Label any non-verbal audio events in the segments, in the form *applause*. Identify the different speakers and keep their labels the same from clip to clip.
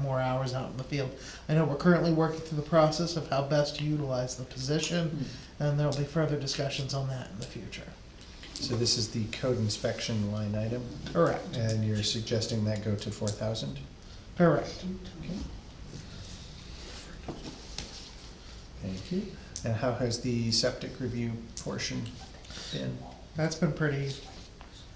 Speaker 1: more hours out in the field. I know we're currently working through the process of how best to utilize the position, and there'll be further discussions on that in the future.
Speaker 2: So this is the code inspection line item,
Speaker 1: Correct,
Speaker 2: and you're suggesting that go to four thousand?
Speaker 1: correct.
Speaker 2: Thank you. And how has the septic review portion been?
Speaker 1: That's been pretty,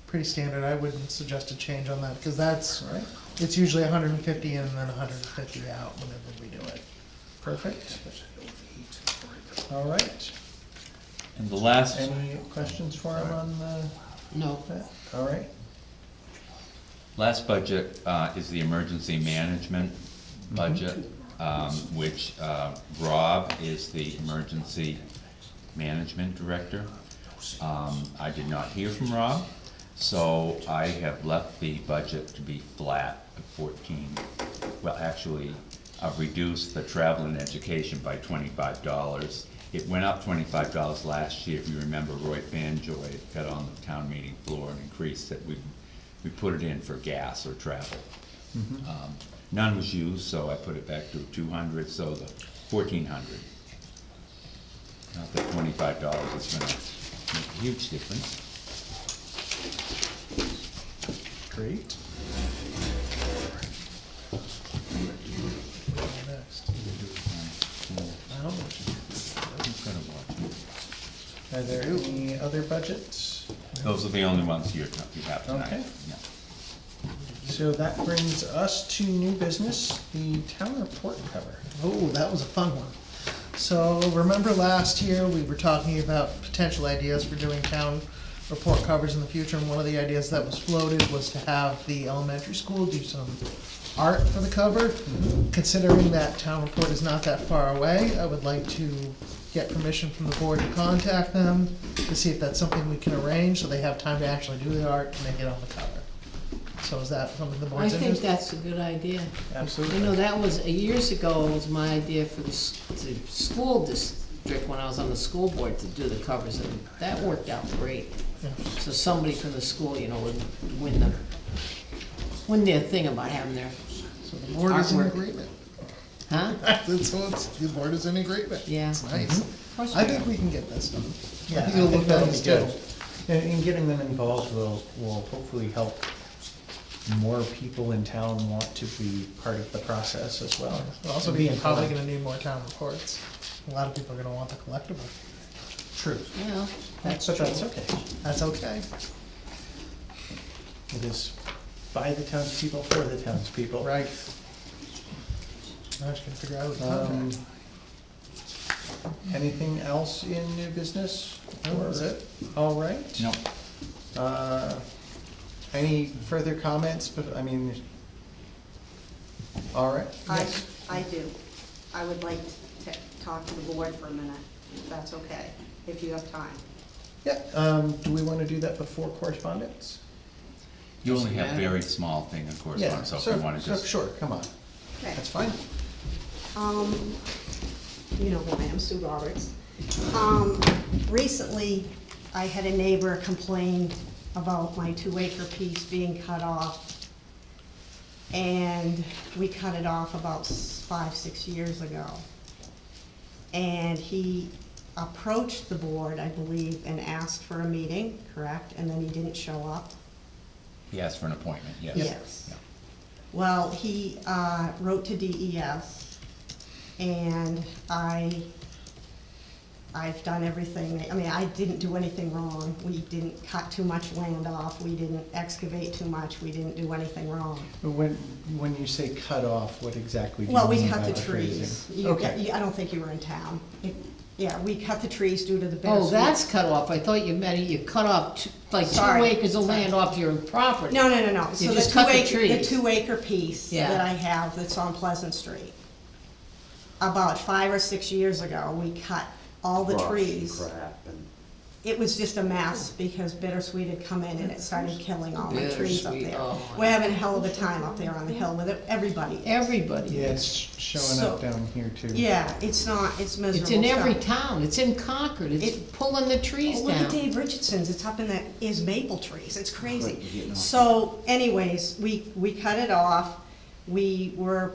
Speaker 1: pretty standard. I wouldn't suggest a change on that, because that's,
Speaker 2: All right,
Speaker 1: it's usually hundred and fifty in and then hundred and fifty out whenever we do it.
Speaker 2: perfect. All right,
Speaker 3: And the last,
Speaker 2: any questions for him on the,
Speaker 4: No.
Speaker 2: that? All right,
Speaker 3: last budget uh, is the emergency management budget, um, which uh, Rob is the emergency management director. Um, I did not hear from Rob, so I have left the budget to be flat at fourteen. Well, actually, I've reduced the travel and education by twenty-five dollars. It went up twenty-five dollars last year, if you remember Roy Fanjoy got on the town meeting floor and increased it. We, we put it in for gas or travel. Um, None was used, so I put it back to two hundred, so the fourteen hundred. Not that twenty-five dollars is gonna make a huge difference.
Speaker 2: great.
Speaker 1: Next. I don't know.
Speaker 3: Who's gonna watch it?
Speaker 2: Are there any other budgets?
Speaker 3: Those are the only ones you're, you have tonight.
Speaker 2: Okay.
Speaker 3: Yeah.
Speaker 2: So that brings us to new business, the town report cover.
Speaker 1: Oh, that was a fun one. So remember last year, we were talking about potential ideas for doing town report covers in the future, and one of the ideas that was floated was to have the elementary school do some art for the cover. Considering that town report is not that far away, I would like to get permission from the board to contact them to see if that's something we can arrange, so they have time to actually do the art and they get on the cover. So is that something the
Speaker 4: I
Speaker 1: board's
Speaker 4: think
Speaker 1: interested?
Speaker 4: that's a good idea. You know,
Speaker 2: Absolutely.
Speaker 4: that was, years ago, was my idea for the, s- the school district, when I was on the school board, to do the covers, and that worked out great.
Speaker 1: Yeah.
Speaker 4: So somebody from the school, you know, would win the, win their thing about having their,
Speaker 1: So the board is in
Speaker 4: Artwork.
Speaker 1: agreement.
Speaker 4: huh?
Speaker 1: *laughs* That's so it's, the board is in agreement.
Speaker 4: Yeah.
Speaker 1: It's nice.
Speaker 4: Of course
Speaker 1: I
Speaker 4: we
Speaker 1: think
Speaker 4: are.
Speaker 1: we can get this done.
Speaker 2: Mm-hmm. Yeah,
Speaker 1: I
Speaker 2: I
Speaker 1: think it'll
Speaker 2: think
Speaker 1: look
Speaker 2: that'll be
Speaker 1: nice
Speaker 2: good.
Speaker 1: too.
Speaker 2: And, and getting them involved will, will hopefully help more people in town want to be part of the process as well.
Speaker 1: We'll also
Speaker 2: And
Speaker 1: be probably
Speaker 2: informed.
Speaker 1: gonna need more town reports. A lot of people are gonna want the collectible.
Speaker 2: True,
Speaker 4: Well, that's
Speaker 2: but
Speaker 4: true.
Speaker 2: that's okay.
Speaker 1: That's okay.
Speaker 2: It is by the townspeople, for the townspeople.
Speaker 1: Right. Now I just gotta figure out the
Speaker 2: Um,
Speaker 1: contract.
Speaker 2: Anything else in new business?
Speaker 1: That was
Speaker 2: Or-
Speaker 1: it.
Speaker 2: All right.
Speaker 3: No,
Speaker 2: Uh, Any further comments, but, I mean, all right.
Speaker 5: I,
Speaker 2: Yes.
Speaker 5: I do. I would like to talk to the board for a minute, if that's okay, if you have time.
Speaker 2: Yeah, um, do we want to do that before correspondence?
Speaker 3: you only have
Speaker 4: Doesn't matter.
Speaker 3: very small thing, of course,
Speaker 2: Yeah,
Speaker 3: on, so if you wanna
Speaker 2: so- so
Speaker 3: just
Speaker 2: Sure, come on,
Speaker 5: Okay.
Speaker 2: that's fine.
Speaker 5: Um, you know who I am, Sue Roberts. Um, recently, I had a neighbor complain about my two acre piece being cut off. And we cut it off about s- five, six years ago. And he approached the board, I believe, and asked for a meeting, correct? And then he didn't show up.
Speaker 3: He asked for an appointment, yes.
Speaker 5: Yes.
Speaker 3: Yeah.
Speaker 5: Well, he uh, wrote to DES, and I, I've done everything, I mean, I didn't do anything wrong. We didn't cut too much land off, we didn't excavate too much, we didn't do anything wrong.
Speaker 2: When, when you say cut off, what exactly do you mean
Speaker 5: Well,
Speaker 2: by
Speaker 5: we
Speaker 2: the
Speaker 5: cut the
Speaker 2: phrasing?
Speaker 5: trees. You-
Speaker 2: Okay,
Speaker 5: you- I don't think you were in town. It- Yeah, we cut the trees due to the bittersweet.
Speaker 4: Oh, that's cut off. I thought you meant you cut off, two- like, two
Speaker 5: Sorry.
Speaker 4: acres of land off your property.
Speaker 5: No, no, no, no. So
Speaker 4: You
Speaker 5: the
Speaker 4: just
Speaker 5: two
Speaker 4: cut the
Speaker 5: acre-
Speaker 4: trees.
Speaker 5: The two acre piece
Speaker 4: Yeah.
Speaker 5: that I have that's on Pleasant Street. About five or six years ago, we cut all the
Speaker 6: brush and
Speaker 5: trees.
Speaker 6: Crap and.
Speaker 5: It was just a mess because bittersweet had come in and it started killing all the trees up
Speaker 4: Bittersweet,
Speaker 5: there.
Speaker 4: oh my
Speaker 5: We're having a hell of a time up there on the hill with it- everybody.
Speaker 4: Everybody.
Speaker 2: yeah, it's showing up
Speaker 5: So-
Speaker 2: down here too.
Speaker 5: Yeah, it's not, it's miserable
Speaker 4: It's in every
Speaker 5: stuff.
Speaker 4: town. It's in Concord. It's
Speaker 5: It-
Speaker 4: pulling the trees
Speaker 5: Well, Look at
Speaker 4: down.
Speaker 5: Dave Richardson's, it's up in the, his maple trees, it's
Speaker 6: Right, you're
Speaker 5: crazy.
Speaker 6: getting off.
Speaker 5: So anyways, we, we cut it off, we were